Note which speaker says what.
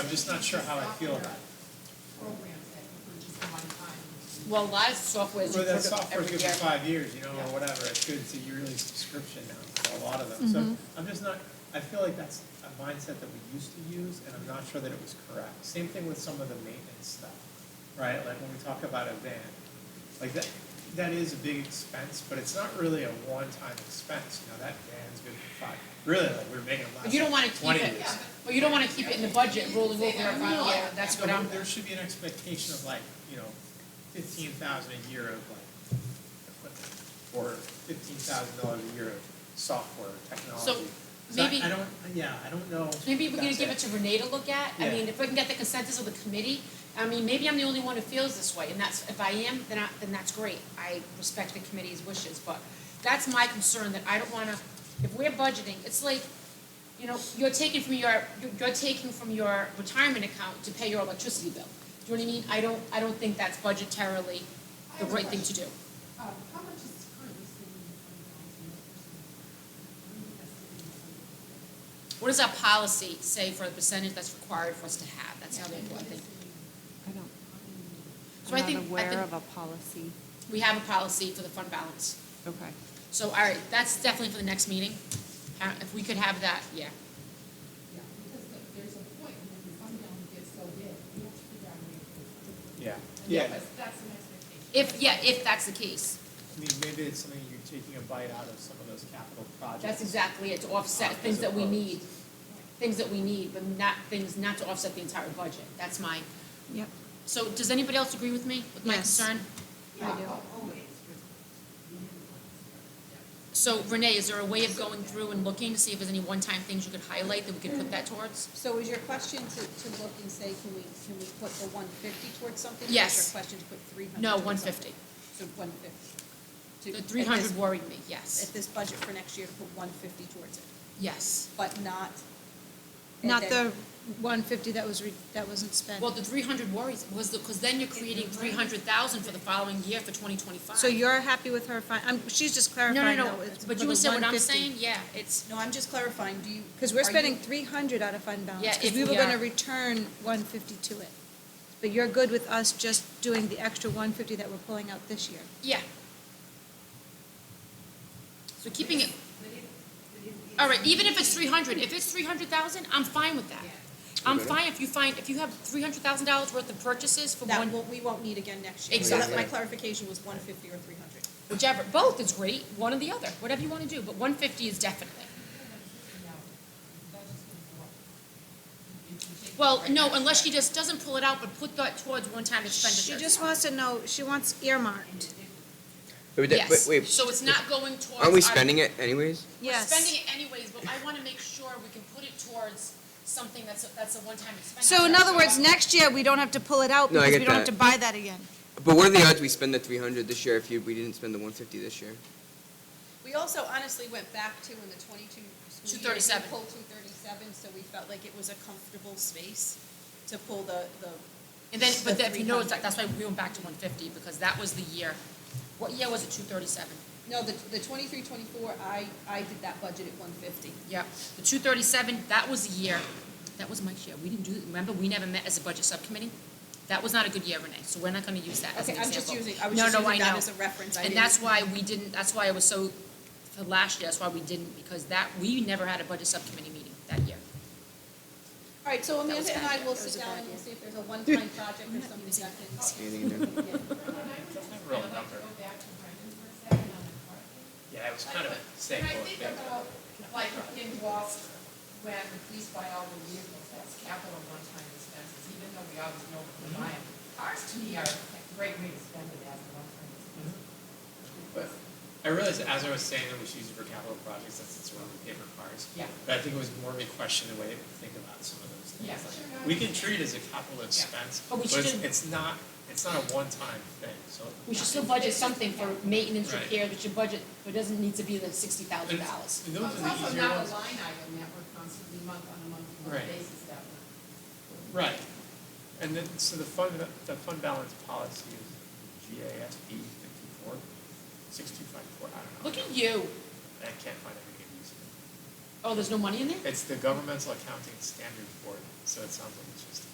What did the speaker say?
Speaker 1: just not sure how I feel about it.
Speaker 2: Programs that were just a one time.
Speaker 3: Well, live software is
Speaker 1: Well, that
Speaker 3: recorded
Speaker 1: software's
Speaker 3: every
Speaker 1: good for
Speaker 3: year.
Speaker 1: five years, you know, or whatever, it's good, it's a yearly subscription now, for a lot of them, so,
Speaker 3: Mm-hmm.
Speaker 1: I'm just not, I feel like that's a mindset that we used to use, and I'm not sure that it was correct. Same thing with some of the maintenance stuff, right, like when we talk about a van, like that, that is a big expense, but it's not really a one-time expense, you know, that van's good for five, really, like, we're making it last
Speaker 3: But you don't wanna
Speaker 1: like
Speaker 3: keep
Speaker 1: twenty years.
Speaker 3: it, but you don't wanna keep it in the budget rolling over every
Speaker 2: No,
Speaker 3: year, that's what
Speaker 1: No,
Speaker 3: I'm,
Speaker 1: but There should be an expectation of like, you know, fifteen thousand a year of like equipment, or fifteen thousand dollars a year of software, technology. So I-
Speaker 3: maybe-
Speaker 1: I don't, yeah, I don't know. if
Speaker 3: maybe we're gonna
Speaker 1: that's
Speaker 3: give it to Renee to look at, I
Speaker 1: Yeah.
Speaker 3: mean, if we can get the consensus of the committee, I mean, maybe I'm the only one who feels this way, and that's, if I am, then I, then that's great, I respect the committee's wishes, but that's my concern, that I don't wanna, if we're budgeting, it's like, you know, you're taking from your, you're- you're taking from your retirement account to pay your electricity bill, do you know what I mean? I don't, I don't think that's budgetarily
Speaker 2: I
Speaker 3: the
Speaker 2: have a
Speaker 3: right thing to
Speaker 2: question.
Speaker 3: do.
Speaker 2: Uh, how much is currently sitting in the fund balance in the first month? What do we have sitting in the fund balance?
Speaker 3: What does our policy say for the percentage that's required for us to have? That's how they
Speaker 2: And what is
Speaker 3: important thing.
Speaker 2: sitting
Speaker 4: I don't,
Speaker 2: on
Speaker 3: So I
Speaker 4: I'm
Speaker 3: think-
Speaker 4: not
Speaker 3: I
Speaker 4: aware
Speaker 3: think-
Speaker 4: of a policy.
Speaker 3: We have a policy for the fund balance.
Speaker 4: Okay.
Speaker 3: So, all right, that's definitely for the next meeting. Uh, If we could have that, yeah.
Speaker 2: the- Yeah, because the- there's a point when the fund balance gets so big, we have to figure out a way to. pay for it.
Speaker 1: it. Yeah,
Speaker 2: And
Speaker 1: yeah,
Speaker 2: that's, that's an expectation.
Speaker 3: If, yeah, if that's the case.
Speaker 1: I mean, maybe it's something you're taking a bite out of some of those capital projects.
Speaker 3: That's exactly it, to offset things that we need, things that we need, but not things, not to offset the entire budget. That's my,
Speaker 4: Yep.
Speaker 3: so does anybody else agree with me, with my
Speaker 4: Yes.
Speaker 3: concern?
Speaker 2: Yeah,
Speaker 4: do.
Speaker 2: oh, always.
Speaker 3: So Renee, is there a way of going through and looking to see if there's any one-time things you could highlight that we could put that towards?
Speaker 5: So is your question to, to look and say, can we, can we put the one fifty towards something? Or
Speaker 3: Yes.
Speaker 5: is your question to put three hundred?
Speaker 3: No, one fifty.
Speaker 5: So one fifty.
Speaker 3: The three hundred worried me, yes,
Speaker 5: At this budget for next year, to put one fifty towards it,
Speaker 3: yes.
Speaker 5: but not. and
Speaker 4: Not
Speaker 5: then-
Speaker 4: the one fifty that was, re- that wasn't spent.
Speaker 3: Well, the three hundred worries was the, because then you're creating three hundred thousand for the following year for twenty twenty-five.
Speaker 4: So you're happy with her fin, I'm, she's just
Speaker 3: No, no,
Speaker 4: clarifying though.
Speaker 3: no, but you understand what I'm saying? Yeah, it's,
Speaker 5: No, I'm just clarifying, do you?
Speaker 4: Because we're
Speaker 5: are you-
Speaker 4: spending three hundred out of fund balance.
Speaker 3: Yeah, if
Speaker 4: Because we were
Speaker 3: we
Speaker 4: gonna
Speaker 3: are-
Speaker 4: return one fifty to it. But you're good with us just doing the extra one fifty that we're pulling out this year.
Speaker 3: yeah. So keeping it,
Speaker 2: But if, but if.
Speaker 3: all right, even if it's three hundred, if it's three hundred thousand, I'm fine with that. I'm fine if you find, if you have three hundred thousand dollars worth of purchases for
Speaker 5: That
Speaker 3: one,
Speaker 5: won't, we won't need again next year. So
Speaker 3: Exactly.
Speaker 5: that- My clarification was one fifty or three hundred.
Speaker 3: whichever, both is great, one or the other, whatever you wanna do, but one fifty is definitely. Well, no, unless she just doesn't pull it out, but put that towards one-time expenditure.
Speaker 4: She just wants to know, she wants earmarked.
Speaker 6: But we did-
Speaker 3: Yes,
Speaker 6: wait, wait,
Speaker 3: so it's not going towards.
Speaker 6: aren't we
Speaker 3: our-
Speaker 6: spending it anyways?
Speaker 4: Yes.
Speaker 3: We're spending it anyways, but I wanna make sure we can put it towards something that's, a- that's a one-time expense.
Speaker 4: So in other words, next year, we don't have to pull it out
Speaker 6: No, I
Speaker 4: because
Speaker 6: get
Speaker 4: we don't have
Speaker 6: that.
Speaker 4: to buy that again.
Speaker 6: But what are the odds we spend the three hundred this year if you, we didn't spend the one fifty this year?
Speaker 5: We also honestly went back to in the twenty-two school year, we
Speaker 3: 237.
Speaker 5: pulled two thirty-seven, so we felt like it was a comfortable space to pull the, the
Speaker 3: And then, but
Speaker 5: the
Speaker 3: then if you notice,
Speaker 5: 300.
Speaker 3: that- that's why we went back to one fifty, because that was the year, what year was it, two thirty-seven?
Speaker 5: No, the, the twenty-three, twenty-four, I, I did that budget at one fifty.
Speaker 3: Yep, the two thirty-seven, that was the year, that was Mike's year, we didn't do, remember, we never met as a budget subcommittee? That was not a good year, Renee, so we're not gonna use that as an
Speaker 5: Okay,
Speaker 3: example.
Speaker 5: I'm just using, I was
Speaker 3: No,
Speaker 5: just
Speaker 3: no,
Speaker 5: using
Speaker 3: I
Speaker 5: that
Speaker 3: know.
Speaker 5: as a reference, I
Speaker 3: And
Speaker 5: didn't.
Speaker 3: that's why we didn't, that's why I was so, for last year, that's why we didn't, because that, we never had a budget subcommittee meeting that year.
Speaker 5: All right, so
Speaker 3: That was
Speaker 5: Amanda and
Speaker 3: bad.
Speaker 5: I will
Speaker 3: That was
Speaker 5: sit
Speaker 3: a
Speaker 5: down
Speaker 3: bad
Speaker 5: and
Speaker 3: year.
Speaker 5: we'll see if there's a one-time project or something that can.
Speaker 6: Anything in there?
Speaker 1: Real
Speaker 2: I'd like to
Speaker 1: number.
Speaker 2: go back to Brendan's work session on the park.
Speaker 1: Yeah, it was kind of a
Speaker 2: When
Speaker 1: staple.
Speaker 2: I think about, like, in Gloucester, when the police buy all the vehicles, that's capital one-time expenses, even though we always know we buy them. Cars to me are a great way to spend it as a one-time expense.
Speaker 1: But I realized as I was saying that we should use it for capital projects, that's it's one of the paper cars.
Speaker 2: Yeah.
Speaker 1: But I think it was more of a question the way that we think about some of those things.
Speaker 2: Yeah.
Speaker 1: Like, We can treat it as a capital expense,
Speaker 3: But
Speaker 1: but
Speaker 3: we
Speaker 1: it's,
Speaker 3: shouldn't-
Speaker 1: it's not, it's not a one-time thing, so.
Speaker 3: We should still budget something for maintenance
Speaker 1: Right.
Speaker 3: repair, but your budget, but it doesn't need to be the sixty thousand
Speaker 1: And
Speaker 3: dollars.
Speaker 1: and those
Speaker 2: Well,
Speaker 1: are
Speaker 2: It's
Speaker 1: the
Speaker 2: also
Speaker 1: easier
Speaker 2: not a
Speaker 1: ones.
Speaker 2: line item that we're constantly month on a month to month
Speaker 1: Right.
Speaker 2: basis that we're.
Speaker 1: Right. And then, so the fund, the fund balance policy is GASB fifty-four, six-two-five-four, I don't know.
Speaker 3: Look at you,
Speaker 1: I can't find it, I can use it.
Speaker 3: Oh, there's no money in there?
Speaker 1: It's the governmental accounting standards board, so it sounds like it's just